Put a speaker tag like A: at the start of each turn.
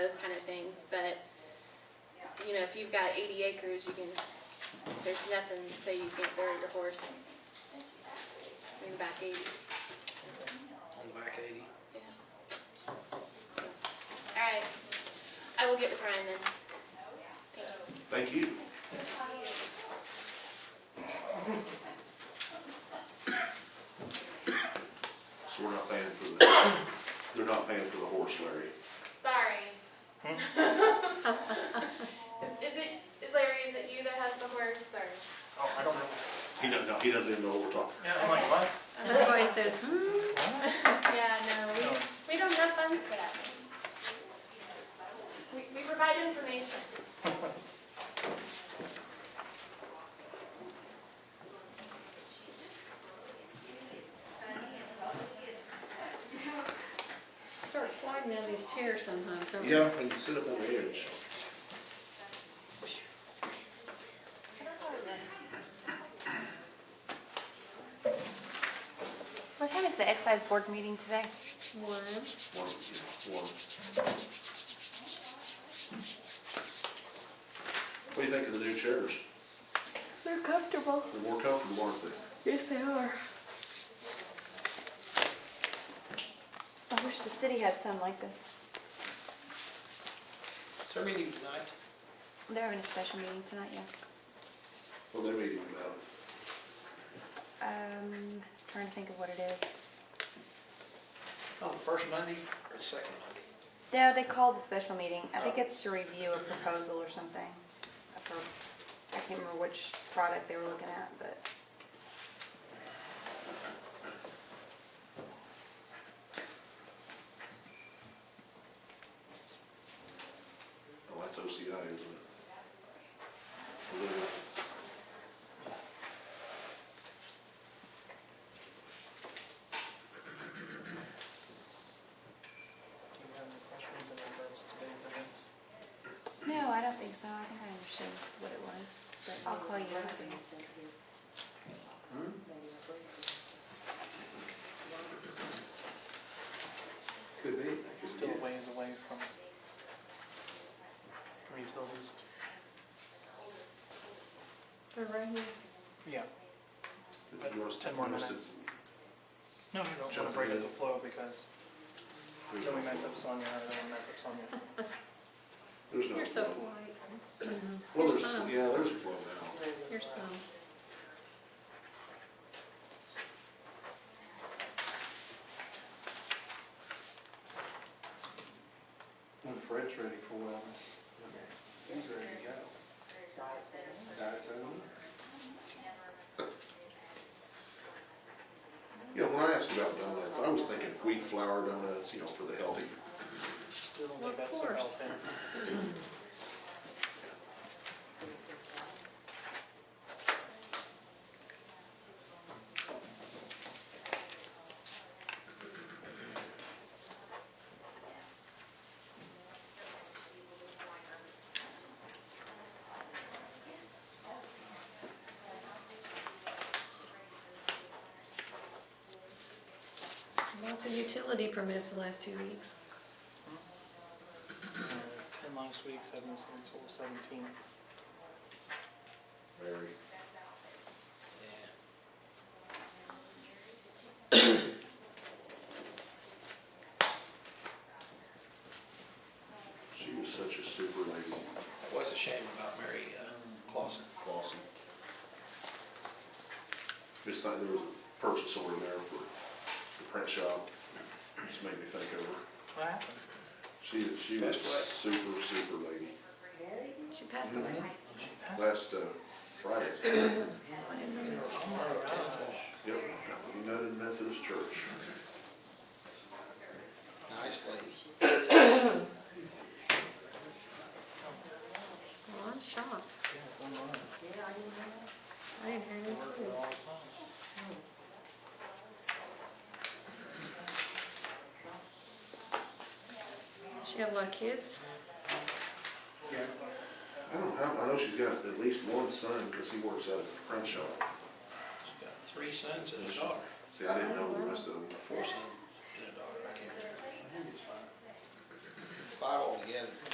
A: those kind of things, but, you know, if you've got eighty acres, you can, there's nothing to say you can't bury your horse in the back eighty, so,
B: on the back eighty.
A: yeah. So, All right, I will get with Ryan then. Thank you.
C: Thank you. So we're not paying for the, they're not paying for the horse, Larry.
A: Sorry. Is it, is Larry, is it you that has the horse, or?
D: Oh, I don't know.
C: He doesn't, no, he doesn't even know what we're talking
D: Yeah, I'm like, what?
E: That's why I said, hmm,
A: Yeah, no, we, we don't have funds for that. We, we provide information.
E: start sliding down these chairs sometimes, don't
C: about.
E: you?
C: Yeah, and you sit up on the edge.
F: What time is the excise board meeting today?
C: One, yeah, one. What do you think of the new chairs?
E: They're comfortable.
C: They're more comfortable, aren't they?
E: Yes, they are.
F: I wish the city had some like this.
D: Is there a meeting tonight?
F: They're having a special meeting tonight, yeah.
C: Well, they're meeting about oh, it.
F: Um, trying to think of what it is.
D: Oh, the first Monday or the second Monday?
F: No, they called a special meeting. I think it's to review a proposal or something. I for- I can't remember which product they were looking at, but.
C: Oh, that's OCI, isn't it? Blue.
D: Do you have any questions in regards to today's events?
F: No, I don't think so. I think I understood what it was, but I'll call you. after.
B: Could be.
D: Still a ways away from from utilities.
E: They're right here.
D: Yeah.
C: If you want us to-
D: Ten more
C: you want us to-
D: minutes. No, you don't want to break up the flow because
C: There's
D: then
C: no
D: we mess
C: flow.
D: up Sonia, and then we mess up Sonia.
C: There's no
E: You're so
C: flow.
E: polite.
C: Well,
E: Here's
C: there's,
E: some.
C: yeah, there's a flow now.
E: Here's some.
B: When Fred's ready for wellness. He's ready to go. Diatomy?
C: You know, when I asked about donuts, I was thinking wheat flour donuts, you know, for the healthy.
D: Still don't
E: Well, of
D: think that's so
E: course.
D: helping.
E: Lots of utility permits the last two weeks.
D: Uh, Ten last week, seven this week, total seventeen.
C: Very. She was such a super lady,
G: What's a shame about Mary uh, Clausen?
C: Clausen. Just like there was a purchase order there for the print shop, just made me think of her.
D: What happened?
C: She, she was
G: That's what-
C: super, super lady.
E: She passed away.
D: She passed.
C: Last uh, Friday,
D: Oh my gosh.
C: yep, at the United Methodist Church.
G: Nice lady.
E: Well, I'm shocked.
D: Yeah, so am I.
E: I didn't hear
D: I
E: anything.
D: work her all the time.
E: She have a lot of kids?
C: I don't know, how- I know she's got at least one son, because he works out at the print shop.
G: She's got three sons and a daughter.
C: See, I didn't know the rest of them.
G: Four sons and a daughter. I can't remember. Five altogether. together.